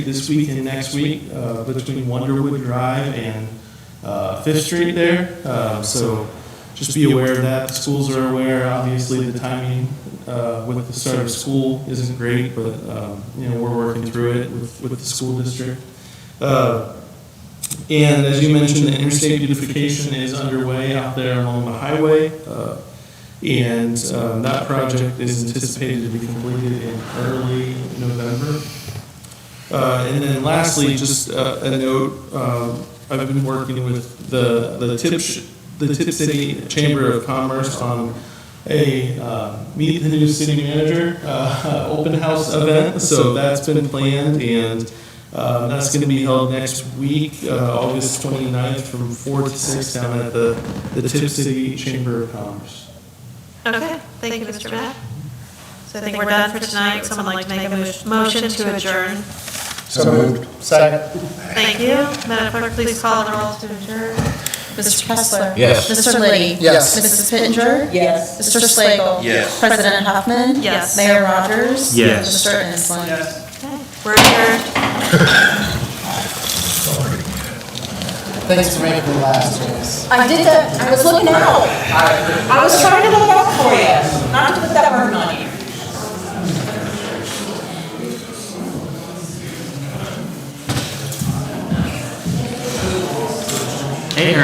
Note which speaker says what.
Speaker 1: this week and next week uh, between Wonderwood Drive and uh, Fifth Street there. Um, So just be aware of that. The Schools are aware, obviously, the timing uh, with the start of school isn't great, but, um, you know, we're working through it with, with the school district. Uh, And as you mentioned, the interstate beautification is underway out there along the highway. Uh, and um, that project is anticipated to be completed in early November. Uh, And then lastly, just uh, a note, um, I've been working with the, the Tip, Sh- the Tip City Chamber of Commerce on a uh, Meet the New City Manager uh, open house event. So that's been planned and um, that's going to be held next week, uh, August 29th, from 4 to 6 down at the, the Tip City Chamber of Commerce.
Speaker 2: Okay, thank you, Mr. Matt. So I think we're done for tonight. Would Someone like to make a mo- motion to adjourn?
Speaker 3: So moved. Second.
Speaker 2: Thank you. Madam Clerk, please call the roll to adjourn.
Speaker 4: Mr. Kessler.
Speaker 3: Yes.
Speaker 4: Mr. Liddy.
Speaker 3: Yes.
Speaker 4: Mrs. Pittenger. Yes. Mr. Slagle.
Speaker 3: Yes.
Speaker 4: President Hoffman.
Speaker 2: Yes.
Speaker 4: Mayor Rogers.
Speaker 5: Yes.
Speaker 4: Mr. Ensland.
Speaker 2: Okay, We're adjourned.
Speaker 3: Thanks for making the last, Janice.
Speaker 6: I Oh, did that, I was looking out. I was trying to look out for you, not to put that burden on you.